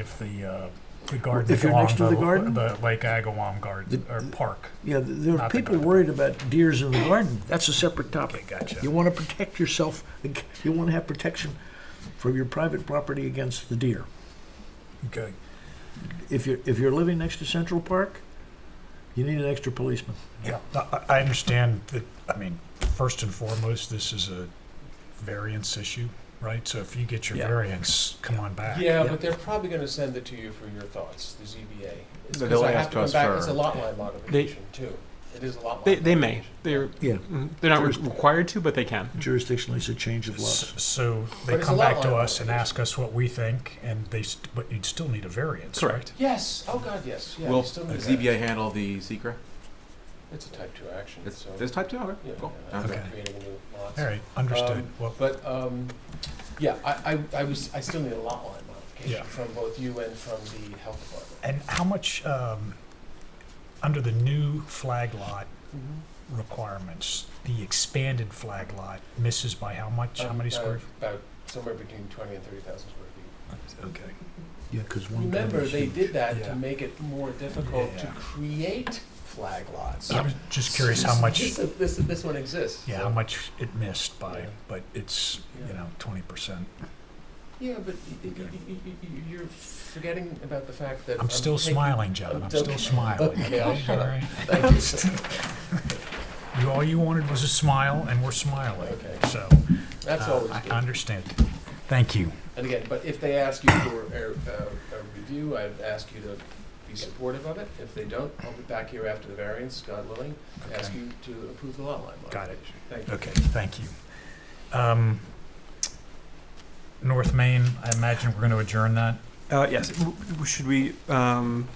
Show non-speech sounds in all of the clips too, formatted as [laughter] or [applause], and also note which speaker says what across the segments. Speaker 1: if the, uh, the garden.
Speaker 2: If you're next to the
Speaker 1: along
Speaker 2: garden?
Speaker 1: The Lake Agawam Garden,
Speaker 2: The-
Speaker 1: or Park.
Speaker 2: Yeah, th- there are
Speaker 1: Not the
Speaker 2: people
Speaker 1: garden.
Speaker 2: worried about deers in the garden. That's a separate
Speaker 1: Okay,
Speaker 2: topic.
Speaker 1: gotcha.
Speaker 2: You want to protect yourself, ag- you want to have protection for your private property against the deer.
Speaker 1: Okay.
Speaker 2: If you're, if you're living next to Central Park, you need an extra policeman.
Speaker 1: Yeah, I, I understand that, I mean, first and foremost, this is a variance issue, right? So if you get your
Speaker 2: Yeah.
Speaker 1: variance, come on back.
Speaker 3: Yeah,
Speaker 2: Yeah.
Speaker 3: but they're probably gonna send it to you for your thoughts, the ZBA. It's
Speaker 4: But
Speaker 3: 'cause
Speaker 4: they'll
Speaker 3: I
Speaker 4: ask
Speaker 3: have to come
Speaker 4: us
Speaker 3: back.
Speaker 4: for-
Speaker 3: It's a lot line modification too. It is a lot line.
Speaker 4: They, they may.
Speaker 3: modification.
Speaker 4: They're,
Speaker 2: Yeah.
Speaker 4: mm, they're not re-
Speaker 2: First-
Speaker 4: required to, but they can.
Speaker 2: Jurisdictionally, it's a change of laws.
Speaker 1: S- So they
Speaker 3: But it's
Speaker 1: come
Speaker 3: a lot
Speaker 1: back to
Speaker 3: line
Speaker 1: us and ask
Speaker 3: modification.
Speaker 1: us what we think, and they, st- but you'd still need a variance, right?
Speaker 4: Correct.
Speaker 3: Yes, oh god, yes, yeah.
Speaker 4: Will
Speaker 3: we still
Speaker 4: the
Speaker 3: need that.
Speaker 4: ZBA handle the secret?
Speaker 3: It's a type two action,
Speaker 4: It's,
Speaker 3: so.
Speaker 4: it's type two. Okay,
Speaker 3: yeah,
Speaker 4: cool.
Speaker 3: yeah,
Speaker 4: Okay.
Speaker 1: Okay.
Speaker 3: Creating new lots.
Speaker 1: All right, understood.
Speaker 3: Um,
Speaker 1: Well,
Speaker 3: But, um, yeah, I, I, I was, I still need a lot line
Speaker 1: Yeah.
Speaker 3: modification from both you and from the health department.
Speaker 1: and how much, um, under the new flag lot Mm-hmm. requirements, the expanded flag lot misses by how much? How
Speaker 3: Um,
Speaker 1: many
Speaker 3: about-
Speaker 1: square?
Speaker 3: About somewhere between twenty and thirty thousand square feet.
Speaker 1: Okay.
Speaker 2: Yeah, because one. garden
Speaker 3: Remember,
Speaker 2: is
Speaker 3: they
Speaker 2: huge.
Speaker 3: did that
Speaker 1: Yeah.
Speaker 3: to make it more difficult to
Speaker 1: Yeah.
Speaker 3: create flag lots.
Speaker 1: I was just curious how much,
Speaker 3: This, this, this one exists.
Speaker 1: yeah,
Speaker 3: so-
Speaker 1: how much it missed by,
Speaker 3: Yeah.
Speaker 1: but it's, you
Speaker 3: Yeah.
Speaker 1: know, twenty percent.
Speaker 3: Yeah, but y- y- y- y- y- you're forgetting about the fact that.
Speaker 1: I'm still
Speaker 3: taking-
Speaker 1: smiling, John,
Speaker 3: I'm
Speaker 1: I'm still
Speaker 3: joking.
Speaker 1: smiling.
Speaker 3: Okay, I'll shut up.
Speaker 1: All right.
Speaker 3: Thank
Speaker 1: [laughs]
Speaker 3: you.
Speaker 1: You, all you wanted was a smile, and we're smiling,
Speaker 3: Okay,
Speaker 1: so,
Speaker 3: that's
Speaker 1: uh,
Speaker 3: always
Speaker 1: I
Speaker 3: good.
Speaker 1: understand. Thank you.
Speaker 3: And again, but if they ask you for a, a, a review, I'd ask you to be supportive of it. If they don't, I'll be back here after the variance, God willing, to ask
Speaker 1: Okay.
Speaker 3: you to approve the lot line
Speaker 1: Got it.
Speaker 3: modification. Thank you.
Speaker 1: Okay, thank you. Um, North Main, I imagine we're gonna adjourn that?
Speaker 4: Uh, yes. W- w- Should we um,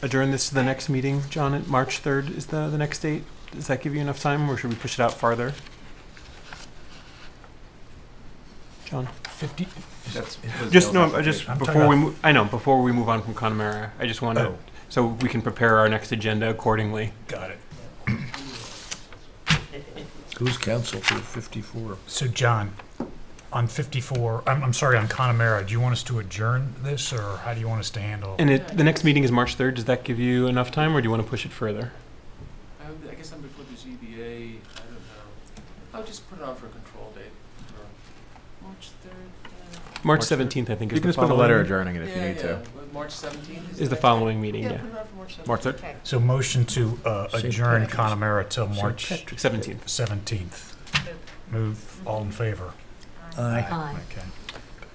Speaker 4: adjourn this to the next meeting, John? At March third is the the next date. Does that give you enough time, or should we push it out farther? John,
Speaker 1: Fifty?
Speaker 4: That's-
Speaker 1: Just
Speaker 4: just no. I Just
Speaker 1: I'm talking
Speaker 4: before we,
Speaker 1: about-
Speaker 4: mo- I know before we move on from Connemara, I just want to
Speaker 1: Oh,
Speaker 4: so we can prepare our next agenda accordingly.
Speaker 1: got it.
Speaker 2: Who's counsel for fifty-four?
Speaker 1: So, John, on fifty-four, I'm, I'm sorry, on Connemara, do you want us to adjourn this, or how do you want us to handle?
Speaker 4: And it, the next meeting is March third. Does that give you enough time, or do you want to push it further?
Speaker 3: I guess I'm before the ZBA, I don't know. I'll just put it on for a control date March third. uh,
Speaker 4: March
Speaker 5: March
Speaker 4: seventeenth, I think,
Speaker 5: You
Speaker 4: is
Speaker 5: can
Speaker 4: the
Speaker 5: just put a
Speaker 4: following.
Speaker 5: letter adjourning it if you
Speaker 3: Yeah,
Speaker 5: need
Speaker 3: yeah,
Speaker 5: to.
Speaker 3: March seventeenth is.
Speaker 4: Is the following meeting?
Speaker 3: Yeah,
Speaker 4: Yeah,
Speaker 3: put it on for March seventeenth.
Speaker 5: March third?
Speaker 1: So motion to, uh,
Speaker 2: St.
Speaker 1: adjourn
Speaker 2: Patrick's.
Speaker 1: Connemara till March
Speaker 4: seventeenth.
Speaker 1: seventeenth. Move, all in favor?
Speaker 2: Uh,
Speaker 1: Okay.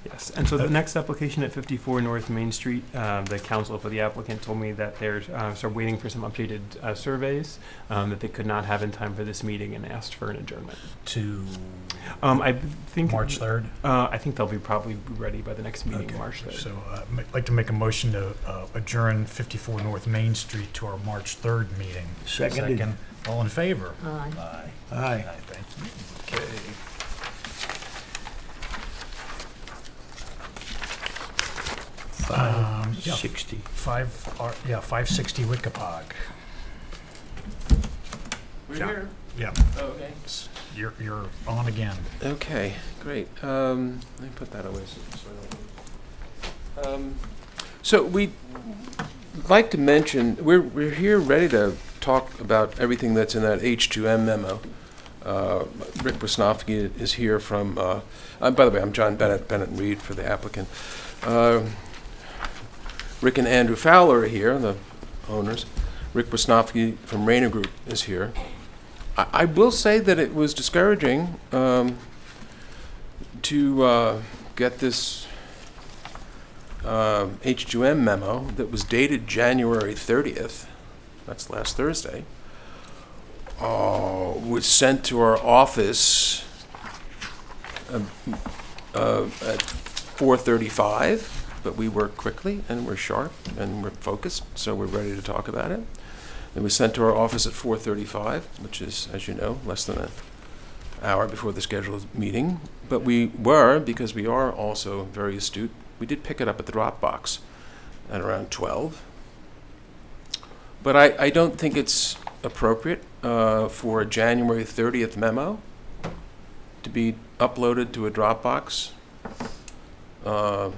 Speaker 4: Yes, Uh, and so the
Speaker 1: Okay.
Speaker 4: next application at 54 North Main Street, um, the counsel for the applicant told me that they're, uh, sort of waiting for some updated, uh, surveys, um, that they could not have in time for this meeting and asked for an adjournment.
Speaker 1: To
Speaker 4: Um, I think.
Speaker 1: March third?
Speaker 4: Uh, I think they'll be probably ready by the next meeting,
Speaker 1: Okay,
Speaker 4: March 3rd.
Speaker 1: So uh, ma- I'd like to make a motion to uh, adjourn 54 North Main Street to our March 3rd meeting.
Speaker 2: Seconded.
Speaker 1: All in favor?
Speaker 6: Aye.
Speaker 1: Aye.
Speaker 2: Aye.
Speaker 1: Aye, thank you. Okay. Um,
Speaker 2: Five
Speaker 1: Um, yeah.
Speaker 2: sixty.
Speaker 1: Five, ar- yeah, 560 Wickapog.
Speaker 3: We're
Speaker 1: Yeah.
Speaker 3: here.
Speaker 1: Yeah,
Speaker 3: Oh, okay.
Speaker 1: s- you're, you're on again.
Speaker 3: Okay, great. Um, let me put that away so, so I don't. Um, so we like to mention we're we're here ready to talk about everything that's in that H2M memo. Uh, Rick Wisnowski is here from. Uh, uh, by the way, I'm John Bennett Bennett Reed for the applicant. Um Rick and Andrew Fowler are here, the owners. Rick Wisnowski from Rayner Group is here. I, I will say that it was discouraging um, to uh, get this um H2M memo that was dated January 30th. That's last Thursday. Uh, was sent to our office um, uh, at 4:35, but we work quickly and we're sharp and we're focused, so we're ready to talk about it. It was sent to our office at 4:35, which is, as you know, less than an hour before the scheduled meeting. But we were, because we are also very astute, we did pick it up at the Dropbox at around 12. But I, I don't think it's appropriate uh, for a January 30th memo to be uploaded to a Dropbox. Uh,